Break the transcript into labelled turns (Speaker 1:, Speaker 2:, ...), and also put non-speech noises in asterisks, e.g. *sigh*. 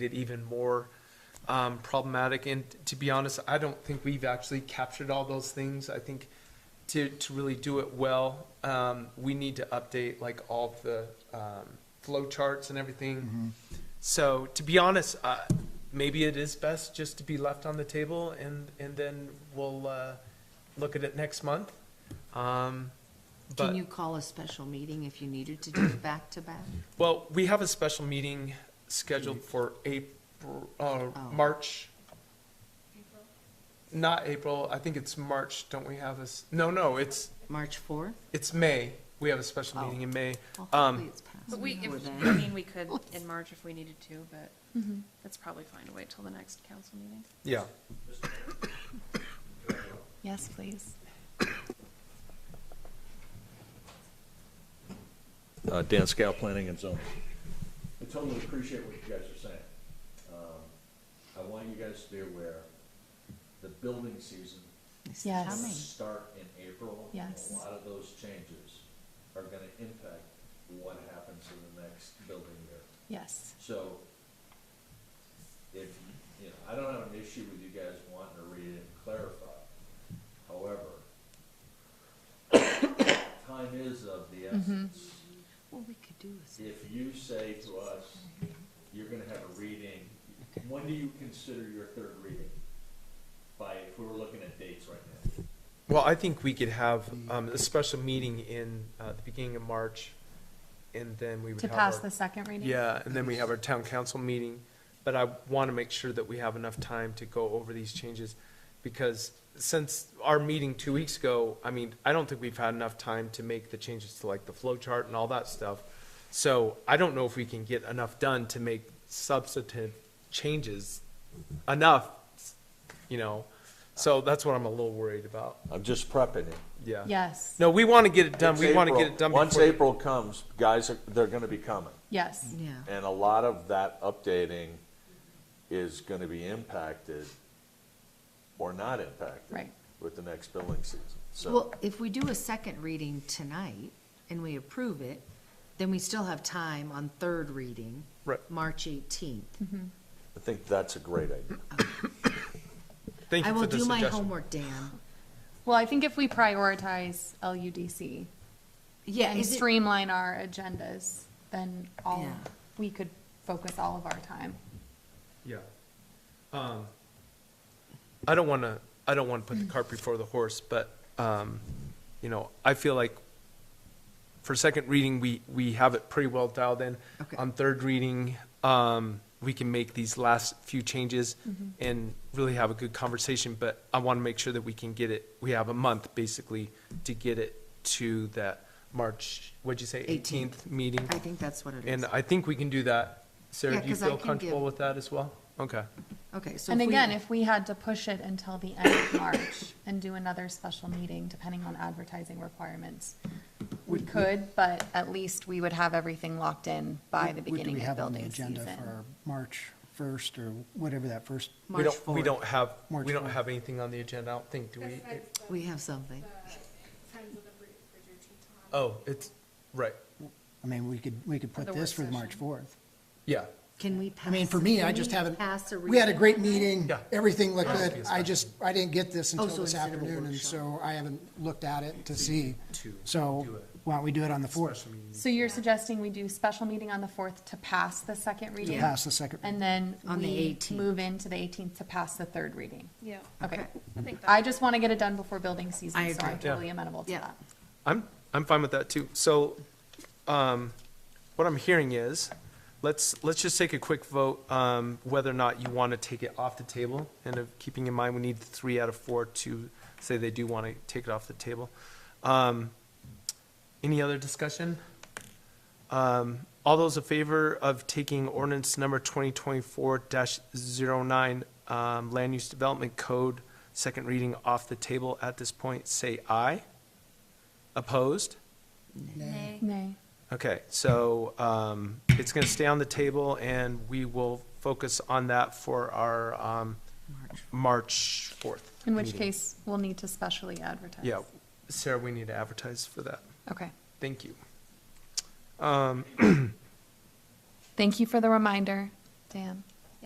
Speaker 1: it even more um, problematic. And to be honest, I don't think we've actually captured all those things. I think to, to really do it well, um, we need to update like all of the um, flow charts and everything. So to be honest, uh, maybe it is best just to be left on the table and, and then we'll uh, look at it next month. Um, but-
Speaker 2: Can you call a special meeting if you needed to
Speaker 1: *clears throat*
Speaker 2: do it back to back?
Speaker 1: Well, we have a special meeting scheduled for April, uh,
Speaker 2: Oh.
Speaker 1: March. Not April, I think it's March, don't we have this? No, no, it's,
Speaker 2: March fourth?
Speaker 1: it's May. We have a special
Speaker 2: Oh.
Speaker 1: meeting in May.
Speaker 2: Well, hopefully
Speaker 1: Um,
Speaker 2: it's
Speaker 3: But
Speaker 2: passed
Speaker 3: we,
Speaker 2: before
Speaker 3: if,
Speaker 2: then.
Speaker 3: I mean, we could in March if we needed to, but that's probably fine to wait till the next council meeting.
Speaker 1: yeah.
Speaker 3: Yes, please.
Speaker 4: Uh, Dan Scow, Planning and Zoning.
Speaker 5: I totally appreciate what you guys are saying. Um, I want you guys to be aware, the building season
Speaker 2: This is
Speaker 5: will
Speaker 2: coming.
Speaker 6: Yes.
Speaker 5: start in April. and
Speaker 6: Yes.
Speaker 5: A lot of those changes are gonna impact what happens in the next building year.
Speaker 6: Yes.
Speaker 5: So if, you know, I don't have an issue with you guys wanting to read it and clarify. However, *coughs* time is of the essence
Speaker 2: Well, we could do this.
Speaker 5: if you say to us, you're gonna have a reading, when do you consider your third reading? By, if we were looking at dates right now,
Speaker 1: Well, I think we could have, um, a special meeting in, uh, the beginning of March. And then we would
Speaker 6: To
Speaker 1: have
Speaker 6: pass
Speaker 1: our-
Speaker 6: the second reading?
Speaker 1: Yeah, and then we have our town council meeting, but I want to make sure that we have enough time to go over these changes, because since our meeting two weeks ago, I mean, I don't think we've had enough time to make the changes to like the flow chart and all that stuff. So I don't know if we can get enough done to make substantive changes enough, you know? So that's what I'm a little worried about,
Speaker 4: I'm just prepping it.
Speaker 1: yeah.
Speaker 6: Yes,
Speaker 1: No, we want to get it done,
Speaker 4: It's
Speaker 1: we want to get
Speaker 4: April.
Speaker 1: it done
Speaker 4: Once
Speaker 1: before,
Speaker 4: April comes, guys, are- they're going to be coming.
Speaker 6: yes.
Speaker 2: Yeah,
Speaker 4: And a lot of that updating is going to be impacted or not impacted.
Speaker 6: Right.
Speaker 4: With the next billing season. So
Speaker 2: well, if we do a second reading tonight and we approve it, then we still have time on third reading.
Speaker 1: Right.
Speaker 2: March eighteenth.
Speaker 4: I think that's a great idea.
Speaker 1: thank
Speaker 2: I
Speaker 1: you for
Speaker 2: will
Speaker 1: the
Speaker 2: do my
Speaker 1: suggestion.
Speaker 2: homework, Dan.
Speaker 6: Well, I think if we prioritize LUDC
Speaker 2: Yeah,
Speaker 6: and
Speaker 2: is it-
Speaker 6: streamline our agendas, then all,
Speaker 2: Yeah.
Speaker 6: we could focus all of our time.
Speaker 1: Yeah. Um, I don't want to, I don't want to put the cart before the horse, but, um, you know, I feel like for second reading, we, we have it pretty well dialed in.
Speaker 2: Okay.
Speaker 1: On third reading, um, we can make these last few changes and really have a good conversation, but I want to make sure that we can get it, we have a month basically to get it to that March, what'd you say,
Speaker 2: 18th.
Speaker 1: eighteenth meeting?
Speaker 2: I think that's what it is.
Speaker 1: And uh, I think we can do that. Sarah,
Speaker 2: Yeah,
Speaker 1: do you
Speaker 2: 'cause I
Speaker 1: feel
Speaker 2: can
Speaker 1: comfortable
Speaker 2: give-
Speaker 1: with that as well? Okay.
Speaker 2: Okay, so.
Speaker 6: And
Speaker 2: we-
Speaker 6: again, if we had to push it until the end of March and do another special meeting, depending on advertising requirements, we could, but at least we would have everything locked in by the
Speaker 7: What- what do we
Speaker 6: beginning of
Speaker 7: have on the
Speaker 6: building
Speaker 7: agenda
Speaker 6: season.
Speaker 7: for March 1st or whatever that first,
Speaker 1: We
Speaker 2: March
Speaker 1: don't, we
Speaker 2: 4th.
Speaker 1: don't have,
Speaker 7: March
Speaker 1: we don't
Speaker 7: fourth.
Speaker 1: have anything on the agenda, I don't think, do we?
Speaker 2: We have something.
Speaker 1: Oh, it's, right,
Speaker 7: I mean, we could, we could put
Speaker 3: The
Speaker 7: this
Speaker 3: work
Speaker 7: for the March
Speaker 3: session.
Speaker 7: 4th.
Speaker 1: yeah.
Speaker 2: Can we pass?
Speaker 7: I mean, for me,
Speaker 2: can
Speaker 7: I just
Speaker 2: we
Speaker 7: haven't,
Speaker 2: pass
Speaker 7: we had a
Speaker 2: reading?
Speaker 7: great meeting,
Speaker 1: Yeah.
Speaker 7: everything looked
Speaker 1: Yeah.
Speaker 7: good. I just, I didn't get this until
Speaker 2: so
Speaker 7: this
Speaker 2: instead of a
Speaker 7: afternoon, and
Speaker 2: workshop.
Speaker 7: so I haven't looked at it to see.
Speaker 1: to
Speaker 7: So
Speaker 1: do it.
Speaker 7: why don't we do it on the 4th?
Speaker 1: Special meeting.
Speaker 6: So you're suggesting we do special meeting on the fourth to pass the second reading?
Speaker 7: Pass the second.
Speaker 6: And then
Speaker 2: On the
Speaker 6: we
Speaker 2: 18th.
Speaker 6: move into the 18th to pass the third reading.
Speaker 3: Yeah.
Speaker 6: Okay.
Speaker 3: I think
Speaker 6: I
Speaker 3: that,
Speaker 6: just want to get it done before building
Speaker 2: I
Speaker 6: season, so I'm
Speaker 2: agree.
Speaker 1: Yeah.
Speaker 6: totally amenable to
Speaker 2: Yeah.
Speaker 6: that.
Speaker 1: I'm, I'm fine with that too. So, um, what I'm hearing is, let's, let's just take a quick vote, um, whether or not you want to take it off the table. And of, keeping in mind, we need three out of four to say they do want to take it off the table. Um, any other discussion? Um, all those in favor of taking ordinance number twenty twenty-four 9 um, land use development code, second reading off the table at this point, say aye. Opposed?
Speaker 6: Nay.
Speaker 1: Okay, so um, it's going to stay on the table, and we will focus on that for our um, March
Speaker 2: March.
Speaker 1: 4th.
Speaker 6: In which
Speaker 1: meeting.
Speaker 6: case, we'll need to specially advertise.
Speaker 1: Yeah, Sarah, we need to advertise for that.
Speaker 6: Okay.
Speaker 1: Thank you.
Speaker 6: Thank you for the reminder, Dan.